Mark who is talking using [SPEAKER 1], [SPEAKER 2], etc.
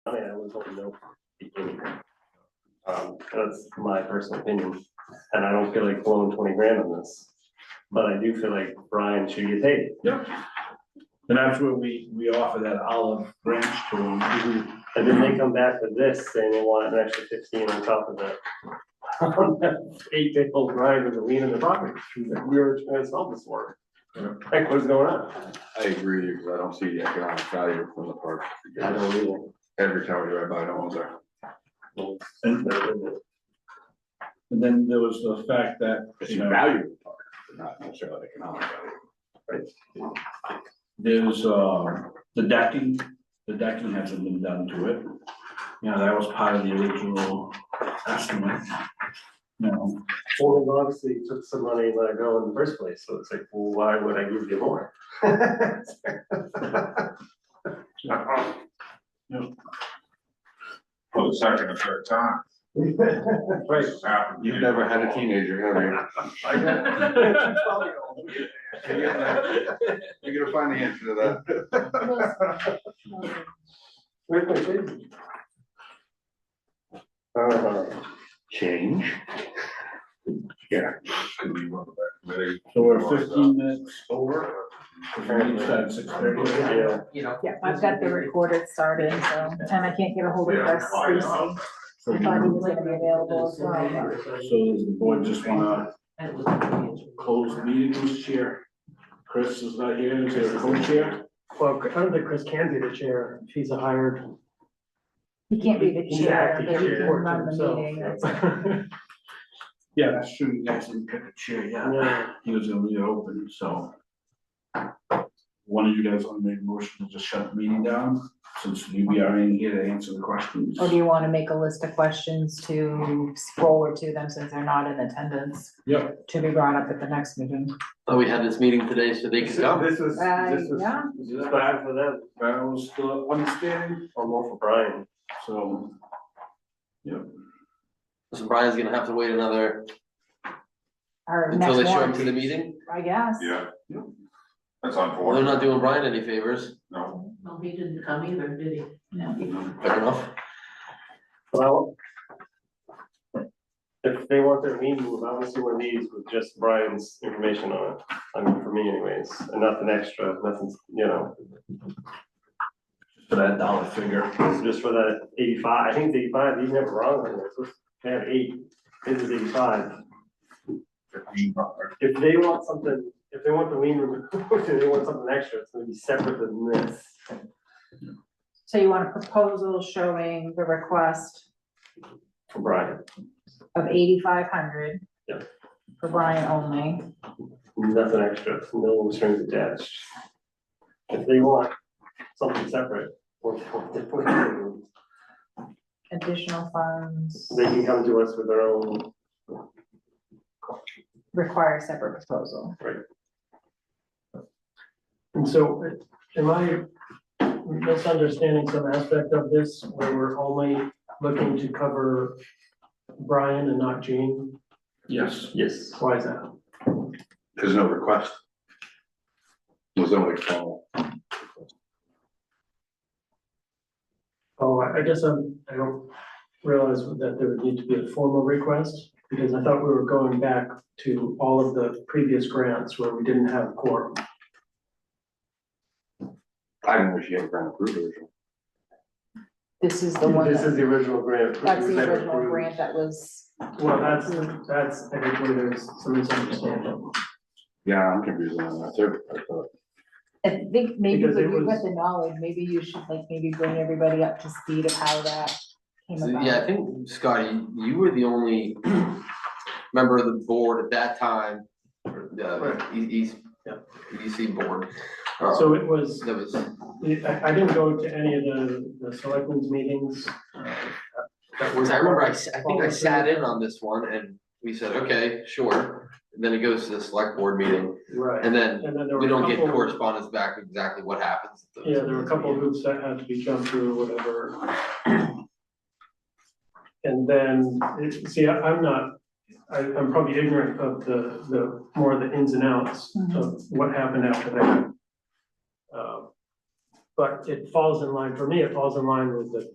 [SPEAKER 1] I mean, I was hoping no. Um, that's my personal opinion, and I don't feel like blowing twenty grand on this, but I do feel like Brian should get paid.
[SPEAKER 2] And that's where we, we offer that olive branch to them.
[SPEAKER 1] And then they come back with this saying they want an extra fifteen on top of that. Eight day old Brian with a lien in the property, we were trying to solve this for. him. Heck, what's going on?
[SPEAKER 3] I agree, because I don't see the economic value from the park.
[SPEAKER 1] I don't either.
[SPEAKER 3] Every tower you ride by, no one's there.
[SPEAKER 2] And, and then there was the fact that,
[SPEAKER 3] It's
[SPEAKER 2] you
[SPEAKER 3] the
[SPEAKER 2] know,
[SPEAKER 3] value of the park, but not necessarily economic value.
[SPEAKER 2] there's, uh, the decking, the decking hasn't been done to it. You know, that was part of the original estimate. You know,
[SPEAKER 1] Well, they've obviously took some money and let it go in the first place, so it's like, well, why would I give you more?
[SPEAKER 4] for the second or third time.
[SPEAKER 1] Right.
[SPEAKER 4] This has happened.
[SPEAKER 3] You've never had a teenager, have you? You're gonna- You're gonna find the answer to that.
[SPEAKER 1] Where's my change? Uh,
[SPEAKER 3] Change?
[SPEAKER 4] And we went back to the-
[SPEAKER 2] so we're fifteen minutes over. We said six thirty.
[SPEAKER 1] yeah,
[SPEAKER 5] Yeah, I've got the recorder started, so, and I can't get a hold of us, Stacy. I thought he was gonna be available as well.
[SPEAKER 2] So does the board just wanna close the meeting, Mr. Chair? Chris is not here, is there a co-chair?
[SPEAKER 6] Well, I don't think Chris can be the chair if he's a hired.
[SPEAKER 5] He can't be the
[SPEAKER 6] He's
[SPEAKER 5] chair,
[SPEAKER 6] acting
[SPEAKER 5] but he can
[SPEAKER 6] chair
[SPEAKER 5] run the
[SPEAKER 6] himself.
[SPEAKER 5] meeting. that's-
[SPEAKER 2] Yeah, that's true, you guys didn't pick a chair, yeah.
[SPEAKER 6] Yeah.
[SPEAKER 2] He was gonna leave it open, so. One of you guys wanna make a motion to just shut the meeting down, since we we are in here to answer the questions.
[SPEAKER 5] Or do you wanna make a list of questions to forward to them since they're not in attendance?
[SPEAKER 2] Yep.
[SPEAKER 5] To be brought up at the next meeting.
[SPEAKER 7] Oh, we had this meeting today, so they could come.
[SPEAKER 1] This is,
[SPEAKER 5] Uh,
[SPEAKER 1] this is.
[SPEAKER 5] yeah,
[SPEAKER 1] This is bad for them,
[SPEAKER 2] That was the understanding,
[SPEAKER 1] or more for Brian.
[SPEAKER 2] so.
[SPEAKER 7] So Brian's gonna have to wait another,
[SPEAKER 5] or
[SPEAKER 7] until they
[SPEAKER 5] next
[SPEAKER 7] show him to
[SPEAKER 5] one,
[SPEAKER 7] the meeting.
[SPEAKER 5] I guess.
[SPEAKER 4] Yeah.
[SPEAKER 2] Yeah.
[SPEAKER 4] That's
[SPEAKER 7] Well, they're
[SPEAKER 4] unfortunate.
[SPEAKER 7] not doing Brian any favors,
[SPEAKER 4] No,
[SPEAKER 8] Well, he didn't come either, did he?
[SPEAKER 7] quick enough.
[SPEAKER 1] Well. If they want their meeting, moved, I want to see one of these with just Brian's information on it, I mean, for me anyways, and nothing extra, nothing, you know,
[SPEAKER 2] For that dollar figure.
[SPEAKER 1] just for that eighty-five, I think the eighty-five, he's never wrong on this, they have eight, this is eighty-five.
[SPEAKER 4] fifteen bucks.
[SPEAKER 1] If they want something, if they want the lien removed, and they want something extra, it's gonna be separate than this.
[SPEAKER 5] So you want a proposal showing the request
[SPEAKER 1] For Brian,
[SPEAKER 5] of eighty-five hundred?
[SPEAKER 1] Yep.
[SPEAKER 5] For Brian only,
[SPEAKER 1] nothing extra, no strings attached. If they want something separate, or,
[SPEAKER 5] additional funds.
[SPEAKER 1] they can come to us with their own
[SPEAKER 5] require a separate proposal.
[SPEAKER 6] And so am I misunderstanding some aspect of this where we're only looking to cover Brian and not Gene?
[SPEAKER 2] Yes.
[SPEAKER 1] Yes.
[SPEAKER 6] Why is that?
[SPEAKER 3] There's no request. There's no formal.
[SPEAKER 6] Oh, I I guess I'm, I don't realize that there would need to be a formal request because I thought we were going back to all of the previous grants where we didn't have quorum.
[SPEAKER 3] I didn't know she had a grant approved original.
[SPEAKER 5] This is the one
[SPEAKER 1] This
[SPEAKER 5] that,
[SPEAKER 1] is the original grant.
[SPEAKER 5] that's the
[SPEAKER 1] that was
[SPEAKER 5] original
[SPEAKER 1] approved.
[SPEAKER 5] grant that was,
[SPEAKER 6] Well, that's, that's, I think where there's some misunderstanding.
[SPEAKER 3] Yeah, I'm confused on that too. I thought-
[SPEAKER 5] I think maybe
[SPEAKER 6] Because
[SPEAKER 5] when
[SPEAKER 6] it
[SPEAKER 5] you've
[SPEAKER 6] was-
[SPEAKER 5] got the knowledge, maybe you should like maybe bring everybody up to speed of how that came
[SPEAKER 7] So,
[SPEAKER 5] about.
[SPEAKER 7] Yeah, I think, Scotty, you were the only member of the board at that time, or the E- East, EDC board. uh,
[SPEAKER 6] So it was.
[SPEAKER 7] That was,
[SPEAKER 6] I, I didn't go to any of the, the selectmen's meetings. uh, that were-
[SPEAKER 7] because I remember I, s- I think I sat in on this one and we said, okay, sure. And then it goes to the select board meeting
[SPEAKER 6] Right,
[SPEAKER 7] and then
[SPEAKER 6] and then there were
[SPEAKER 7] we
[SPEAKER 6] a
[SPEAKER 7] don't get
[SPEAKER 6] couple-
[SPEAKER 7] correspondence back exactly what happens. at those
[SPEAKER 6] Yeah, there were a couple of
[SPEAKER 7] meetings.
[SPEAKER 6] hoops that had to be jumped through or whatever. And then, it- see, I- I'm not, I, I'm probably ignorant of the, the, more of the ins and outs of what happened after that. Uh, But it falls in line, for me, it falls in line with the